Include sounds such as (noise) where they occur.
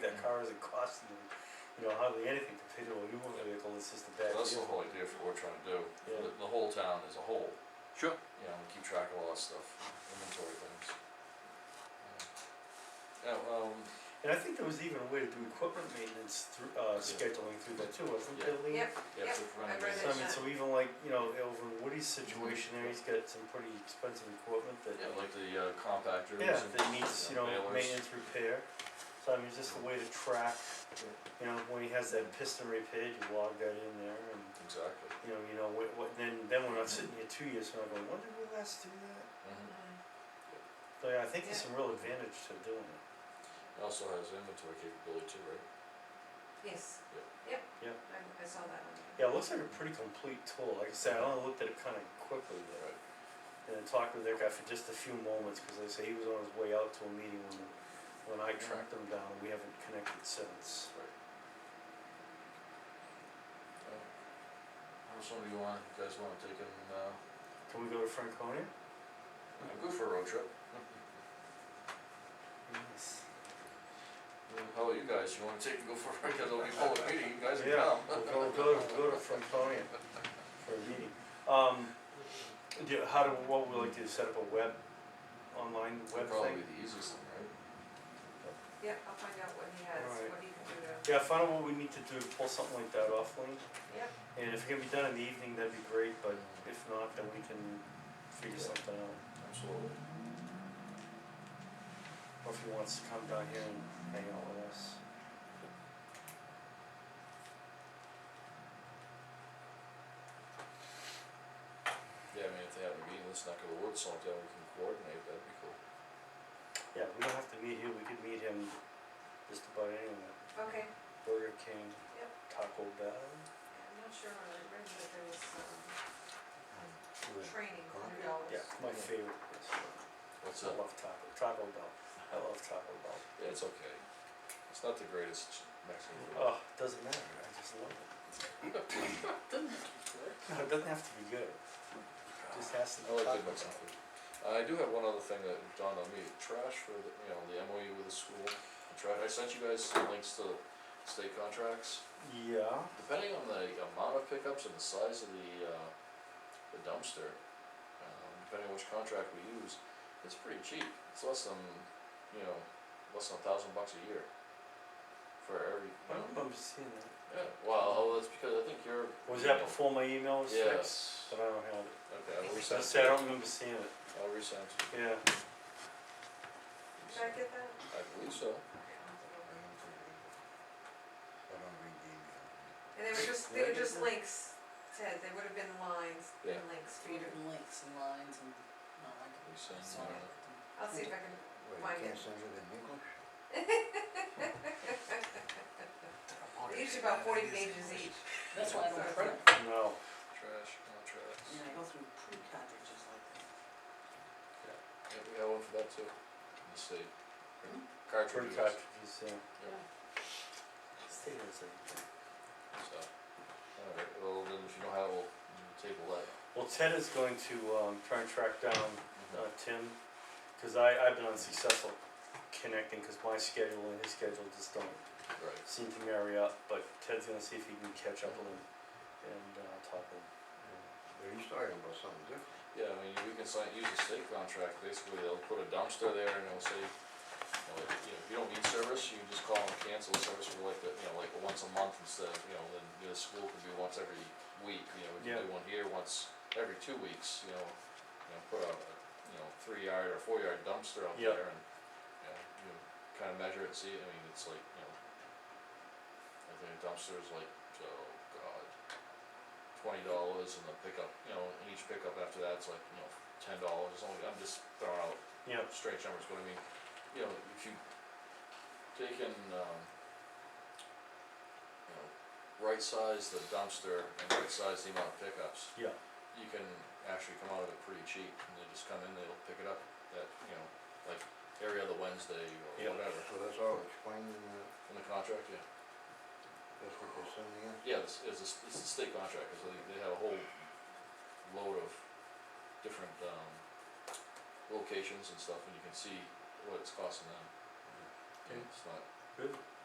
far as it costs them, you know, hardly anything compared to a new vehicle, it's just a bad That's the deal. whole idea for what we're trying to do, Yeah. the, the whole town as a whole, Sure. you know, we keep track of all that stuff, inventory things. Yeah, Yeah, um, And I think there was even a way to do equipment maintenance through, uh, scheduling through that too, wasn't there, Lee? Yep, yeah, Yep, so if we're running I've read this- So I mean, so even like, you know, over in Woody's situation there, he's got some pretty expensive equipment that, Yeah, like the uh, compactors and. yeah, that needs, you know, balers. maintenance repair. So I mean, just a way to track, you know, when he has that piston repaired, you log that in there and, Exactly. you know, you know, what, what, then, then we're not sitting here two years from now going, when did we last do that? Uh-huh. Mhm. So yeah, I think there's some real advantage to doing it. It also has inventory capability too, right? yes, yep, Yep. I, I saw that one. Yeah, it looks like a pretty complete tool, like I said, I only looked at it kinda quickly there. Right. and then talked with that guy for just a few moments, cause like I say he was on his way out to a meeting when, when I Mm-hmm. tracked him down, and we haven't connected since. Or somebody you want, you guys wanna take and, uh, Can we go to Franconia? go for a road trip? Yes. Mm-hmm. How about you guys, you wanna take and go for, a (laughs) because it'll be full of meeting, you guys can Yeah, come. we'll go, go, to- go to Franconia for a meeting. Um, do, you- how do, what would we like to do, set up a web, online web That'd probably thing? be the easiest one, right? Yep, I'll find out what he has, Alright. what he can do to, Yeah, find out what we need to do, pull something like that off, Lee, yep, and if it can be done in the evening, that'd be great, but if not, then we can figure something out. Absolutely. or if he wants to come down here and hang out with us. Yeah, I mean, if they have a meeting in this neck of the woods sometime, we can coordinate, that'd be cool. Yeah, we don't have to meet here, we could meet him just about anywhere, okay, Burger King, Yep. Taco Bell. I'm not sure when I read that there was, um, training, hundred dollars. Yeah, it's my favorite restaurant, What's I up? love Taco, Taco Bell, I love Taco Bell. Yeah, it's okay. It's not the greatest Mexican food. Oh, it doesn't matter, I just love it. No, it doesn't have to be good, it just has to be I like Taco good Mexican Bell. food. Uh, I do have one other thing that dawned on me, trash for the, you know, the MOU with the school, and trash, I sent you guys some links to state contracts. Yeah, Depending on the amount of pickups and the size of the, uh, the dumpster, um, depending on which contract we use, it's pretty cheap, it's less than, you know, less than a thousand bucks a year. For every, I you don't know, remember seeing that. yeah, well, oh, that's because I think you're. Was that before my email was fixed? Yes, But I don't have it, okay, I'll I resend, said I don't remember seeing it, I'll resend, yeah. Did I get that? I believe so. Okay, I'll have to go back. I don't read the email. And they were just, they were just links, Ted, they would have been lines and Yeah. links for you Reading to, links and lines and, no, I We can, send, I saw uh, it. I'll see if I can, Why Wait, you not? can't send it in English? (laughs) each about forty pages each. That's why I (laughs) don't print, No, Trash contracts. you know, I go through print cartridges like that. Yeah, we have one for that too, in the state. Hmm? print Cartridges, cartridges, yeah. Yeah. Stay there a second. so, alright, well, then if you don't have, we'll we'll table that. Well, Ted is going to, um, try and track down, Mhm. uh, Tim, cause I, I've been unsuccessful connecting, cause my schedule and his schedule just don't Right, seem to marry up, but Ted's gonna see if he can catch up with him and, uh, talk with him. But he's talking about something different. yeah, I mean, we can sign, use a state contract, basically, they'll put a dumpster there and they'll say, you know, like, you know, if you don't need service, you just call and cancel the service for like, the- you know, like once a month instead of, you know, then the school could be once every week, you know, we Yeah. can do one here once every two weeks, you know. You know, put a, you know, three yard or four yard dumpster out Yeah. there and, you know, you know, kinda measure it, see, it. I mean, it's like, you know. I think a dumpster is like, oh god, twenty dollars and the pickup, you know, and each pickup after that's like, you know, ten dollars, it's only, I'm just throwing out Yeah, strange numbers, but I mean, you know, if you take and, um, you know, right size the dumpster and right size the amount of pickups. Yeah. You can actually come out of it pretty cheap, and they just come in, they'll pick it up at, you know, like every other Wednesday or Yeah. whatever, So that's all explaining, in uh, the contract, yeah. that's what they're sending in? Yeah, it's, it's a, s- it's a state contractor, so they, they have a whole load of different, um, locations and stuff, and you can see what it's costing them. Okay. It's not, good.